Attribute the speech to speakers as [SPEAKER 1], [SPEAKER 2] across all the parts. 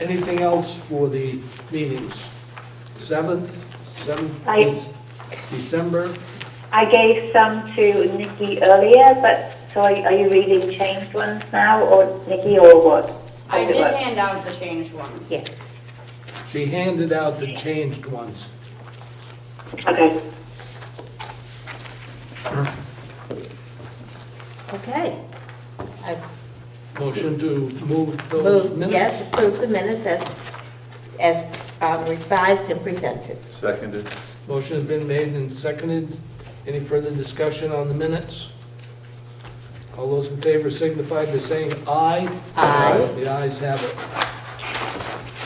[SPEAKER 1] Anything else for the meetings? 7th, 7th
[SPEAKER 2] I-
[SPEAKER 1] is December.
[SPEAKER 2] I gave some to Nikki earlier, but so are, are you reading changed ones now, or Nikki, or what?
[SPEAKER 3] I
[SPEAKER 2] How's it
[SPEAKER 3] did
[SPEAKER 2] work?
[SPEAKER 3] hand out the changed ones.
[SPEAKER 4] Yes.
[SPEAKER 1] She handed out the changed ones.
[SPEAKER 2] Okay.
[SPEAKER 4] Okay. I
[SPEAKER 1] Motion to move those
[SPEAKER 4] move,
[SPEAKER 1] minutes?
[SPEAKER 4] yes, approve the minutes as, as um, revised and presented.
[SPEAKER 5] Seconded.
[SPEAKER 1] Motion has been made and seconded. Any further discussion on the minutes? All those in favor signify by saying aye.
[SPEAKER 4] Aye.
[SPEAKER 1] The ayes have it.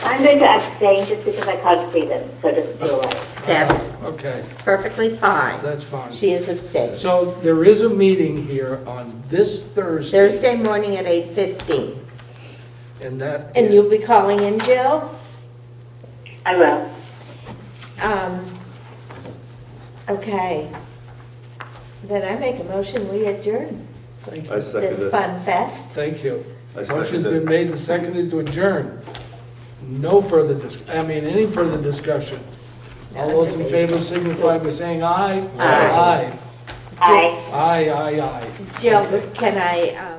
[SPEAKER 2] I'm going to abstain just because I can't see them, so it doesn't feel right.
[SPEAKER 4] That's
[SPEAKER 1] Okay,
[SPEAKER 4] perfectly fine.
[SPEAKER 1] that's fine.
[SPEAKER 4] She is abstained.
[SPEAKER 1] So there is a meeting here on this Thursday,
[SPEAKER 4] Thursday morning at 8:15.
[SPEAKER 1] and that...
[SPEAKER 4] And you'll be calling in, Jill?
[SPEAKER 2] I will.
[SPEAKER 4] Um, Okay. Then I make a motion, we adjourn
[SPEAKER 1] Thank
[SPEAKER 5] I
[SPEAKER 1] you.
[SPEAKER 4] this
[SPEAKER 5] seconded.
[SPEAKER 4] fun fest.
[SPEAKER 1] Thank you.
[SPEAKER 5] I
[SPEAKER 1] Motion's
[SPEAKER 5] second it.
[SPEAKER 1] been made and seconded to adjourn. No further dis, I mean, any further discussion? All those in favor signify by saying aye.
[SPEAKER 4] Aye.
[SPEAKER 1] Aye.
[SPEAKER 2] Aye.
[SPEAKER 1] Aye, aye, aye.
[SPEAKER 4] Jill, can I um,